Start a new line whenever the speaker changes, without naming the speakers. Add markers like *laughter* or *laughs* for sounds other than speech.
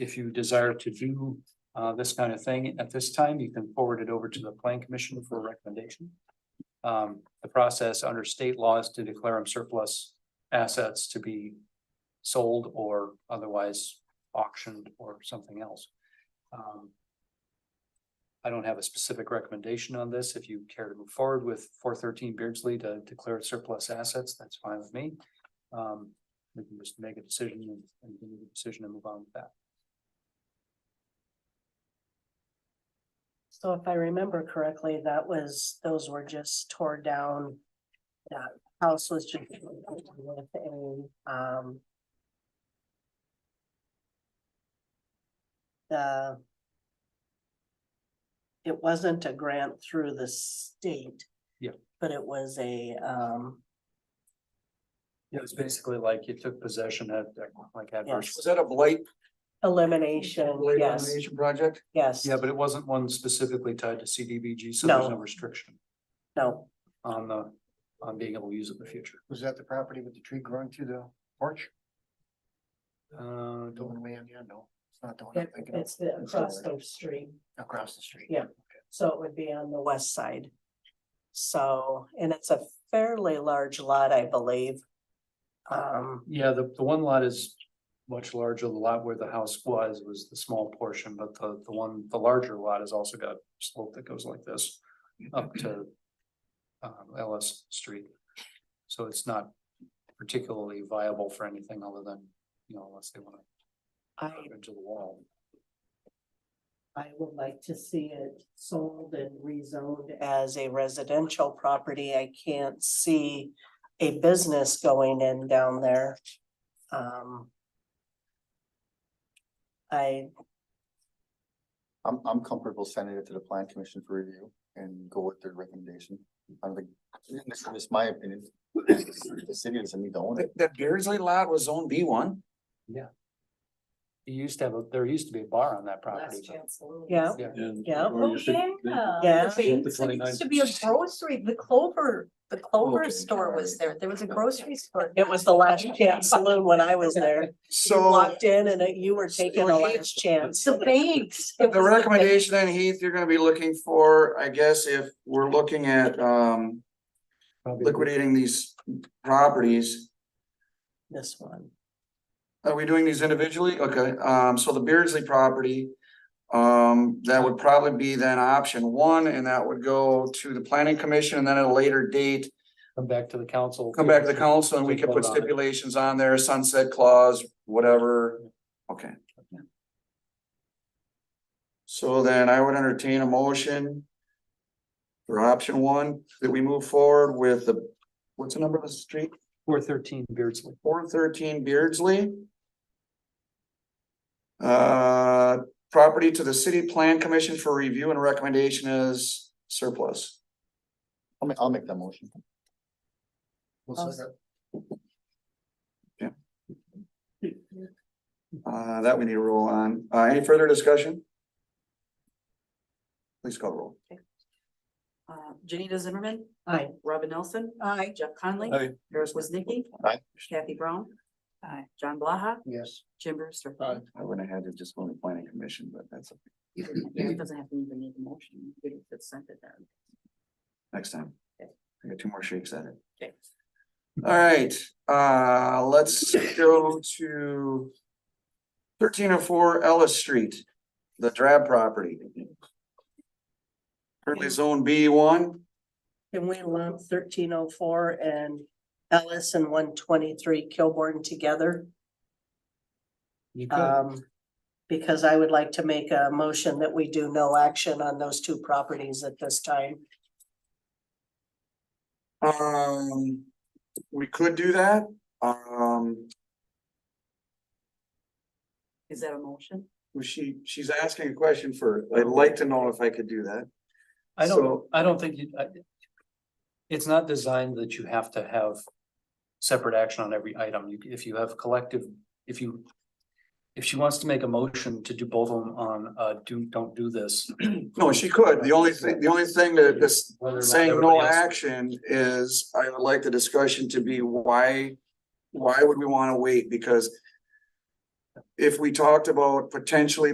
If you desire to do uh this kind of thing at this time, you can forward it over to the plan commission for recommendation. Um, the process under state law is to declare them surplus assets to be sold or otherwise auctioned or something else. Um, I don't have a specific recommendation on this. If you care to move forward with four thirteen Beardsley to declare it surplus assets, that's fine with me. Um, we can just make a decision and, and we make a decision and move on with that.
So if I remember correctly, that was, those were just tore down. That house was just with a, um. The. It wasn't a grant through the state.
Yeah.
But it was a, um,
Yeah, it's basically like you took possession at, like
Yes.
adverse.
Was that a blight?
elimination,
blight
yes,
elimination Project?
yes.
Yeah, but it wasn't one specifically tied to CDBG, so there's
No.
no restriction
No,
on the, on being able to use it in the future.
Was that the property with the tree growing through the porch?
Uh,
The
don't,
one way in, yeah, no, it's not the one I'm
it-
thinking of,
it's the across the street.
across the street.
Yeah. So it would be on the west side. So, and it's a fairly large lot, I believe. Um,
yeah, the, the one lot is much larger. The lot where the house was, was the small portion, but the, the one, the larger lot has also got slope that goes like this up to um, Ellis Street. So it's not particularly viable for anything other than, you know, unless they want to
I,
drive into the wall.
I would like to see it sold and rezoned as a residential property. I can't see a business going in down there. Um. I,
I'm, I'm comfortable sending it to the plan commission for review and go with their recommendation. I don't think, this is my opinion. The city doesn't need to own
That,
it.
that Beardsley lot was zone B one?
You used to have, a there used to be a bar on that property.
Last
but-
chance saloon.
Yeah.
Yeah.
And.
Yeah.
or you should-
Yeah.
The big- There used to be a grocery, the Clover, the Clover
Okay.
store was there. There was a grocery store.
it was the last chance saloon when I was there. You
So
walked in and you were taking the last
*laughs*
chance.
The banks. It was
the
the banks.
recommendation then Heath, you're gonna be looking for, I guess, if we're looking at, um,
probably-
liquidating these properties.
This one.
Are we doing these individually? Okay, um, so the Beardsley property. Um, that would probably be then option one, and that would go to the planning commission, and then at a later date.
Come back to the council.
Come back to the council and we can put
Vote on it.
stipulations on there, sunset clause, whatever, okay. So then I would entertain a motion. For option one, that we move forward with the, what's the number of the street?
Four thirteen Beardsley.
four thirteen Beardsley. Uh, property to the city plan commission for review and recommendation is surplus.
I'll make, I'll make that motion.
Uh, that we need to roll on. Uh, any further discussion? Please call the roll.
Uh, Janita Zimmerman.
Aye.
Robin Nelson.
Aye.
Jeff Conley.
Aye.
Harris Woznicki.
Aye.
Kathy Brown. Aye. John Blaha.
Yes.
Jim Brewster.
I wouldn't have had to just go to planning commission, but that's
It doesn't have to even need a motion. You could have sent it there.
next time. I got two more shakes at it.
Okay.
All right, uh, let's go to thirteen oh four Ellis Street, the drab property. Currently zone B one.
Can we lump thirteen oh four and Ellis and one twenty-three Kilborn together?
You could,
Um, because I would like to make a motion that we do no action on those two properties at this time.
Um, we could do that, um,
Is that a motion?
well, she, she's asking a question for, I'd like to know if I could do that.
I don't,
so-
I don't think you, I. It's not designed that you have to have separate action on every item. You, if you have collective, if you. If she wants to make a motion to do both of them on, uh, do, don't do this.
No, she could, the only thing, the only thing that this
whether or not
saying
everybody
no
else-
action is, I would like the discussion to be why, why would we wanna wait, because. if we talked about potentially